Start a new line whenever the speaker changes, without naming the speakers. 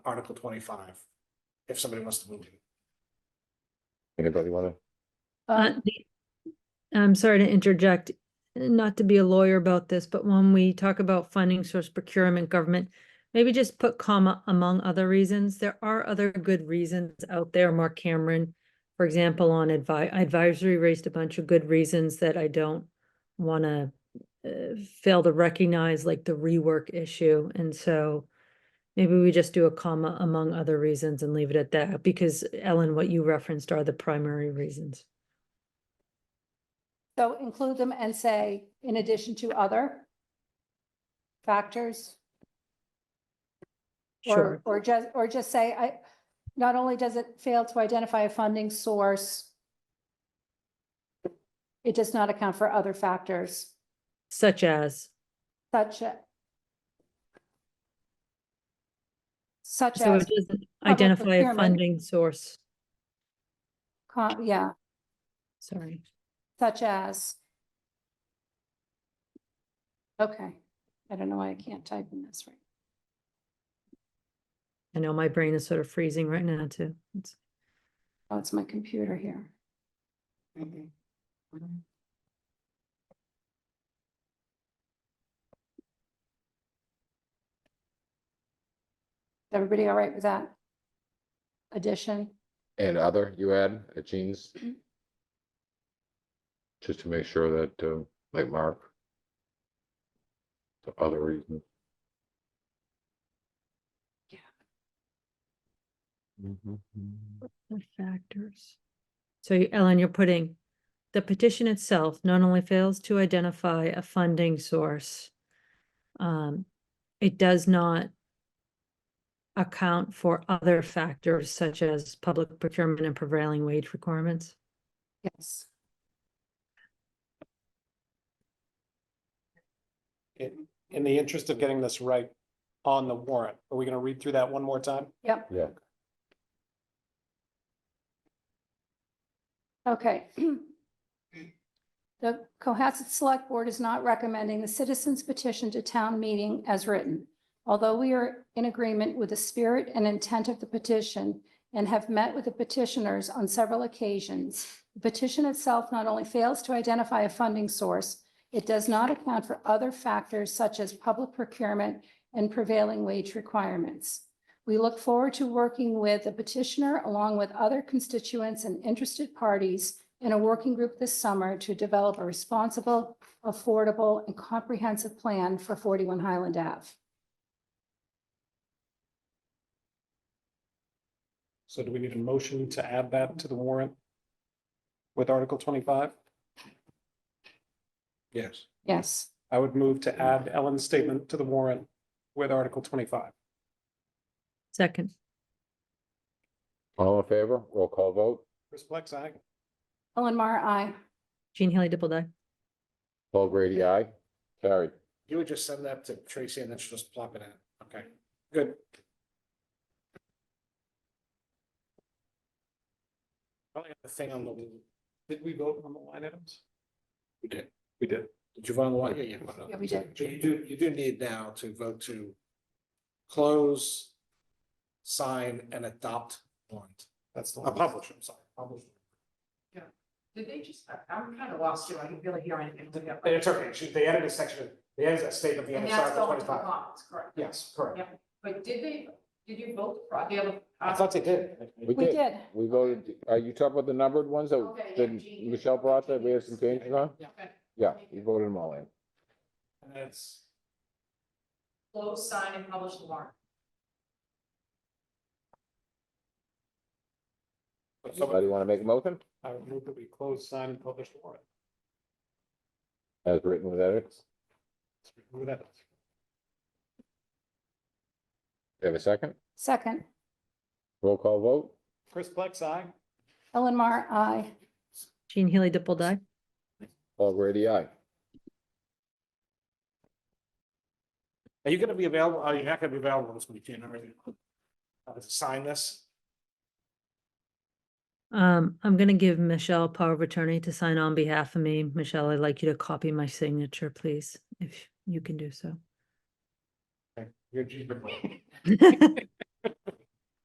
Article twenty-five, if somebody wants to move it.
Anybody wanna?
Um,
Uh, the- I'm sorry to interject, not to be a lawyer about this, but when we talk about funding source procurement government, maybe just put comma among other reasons. There are other good reasons out there. Mark Cameron, for example, on advi- advisory raised a bunch of good reasons that I don't want to fail to recognize, like the rework issue. And so maybe we just do a comma among other reasons and leave it at that, because Ellen, what you referenced are the primary reasons.
So include them and say, in addition to other factors?
Sure.
Or, or just, or just say, I, not only does it fail to identify a funding source, it does not account for other factors
Such as,
such a such
so
as,
it doesn't
public
identify a
procurement.
funding source,
con- yeah,
sorry.
such as. Okay, I don't know why I can't type in this right.
I know my brain is sort of freezing right now too. It's-
Oh, it's my computer here. Everybody all right with that? Addition,
And other, you add, uh, Jean's?
Mm-hmm.
Just to make sure that, uh, like Mark. The other reason.
Yeah.
the Factors. So you- Ellen, you're putting, the petition itself not only fails to identify a funding source, um, it does not account for other factors such as public procurement and prevailing wage requirements.
yes.
In, in the interest of getting this right on the warrant, are we gonna read through that one more time?
Yep.
Yeah.
Okay. The Cohasset Select Board is not recommending the citizens petition to town meeting as written. Although we are in agreement with the spirit and intent of the petition and have met with the petitioners on several occasions, the petition itself not only fails to identify a funding source, it does not account for other factors such as public procurement and prevailing wage requirements. We look forward to working with the petitioner along with other constituents and interested parties in a working group this summer to develop a responsible, affordable, and comprehensive plan for 41 Highland Ave.
So do we need a motion to add that to the warrant? With Article twenty-five? Yes.
Yes,
I would move to add Ellen's statement to the warrant with Article twenty-five.
Second,
All in favor, roll call vote,
Chris Plex, aye.
Ellen Mar, aye.
Jean Haley Dipple
Paul Grady, aye, carried.
You would just send that to Tracy and then she'll just plop it in. Okay, good. Probably have the thing on the, did we vote on the line items? We did. We did. Did you vote on the line? Yeah,
Yeah, we did.
But you do, you do need now to vote to close, sign and adopt warrant. That's the. one. Publish, I'm sorry, publish.
Did they just, I- I'm kind of lost too, I can really hear anything.
It's okay, She- they added a section, they added a statement, the end
And
of
that's
Article
going to the
twenty-five.
bonds, correct?
Yes, correct.
Yeah. But did they, did you vote for the other?
I thought they did.
We
We
did,
did.
we voted, are you talking about the numbered ones that,
Okay, yeah,
that
Jean.
Michelle brought that we had some changes on?
Okay.
Yeah, you voted them all in.
And it's,
Close, sign, and publish the warrant.
but
Somebody
somebody,
wanna make a motion?
I would move that we close, sign and publish the warrant.
As written with edits,
Let's remove that.
you have a second,
Second,
roll call vote,
Chris Plex, aye.
Ellen Mar, aye.
Jean Haley Dipple
Paul Grady, aye.
Are you gonna be available? Are you not gonna be available this weekend, are you? Uh, sign this?
Um, I'm gonna give Michelle power of attorney to sign on behalf of me. Michelle, I'd like you to copy my signature, please, if you can do so.
You're G.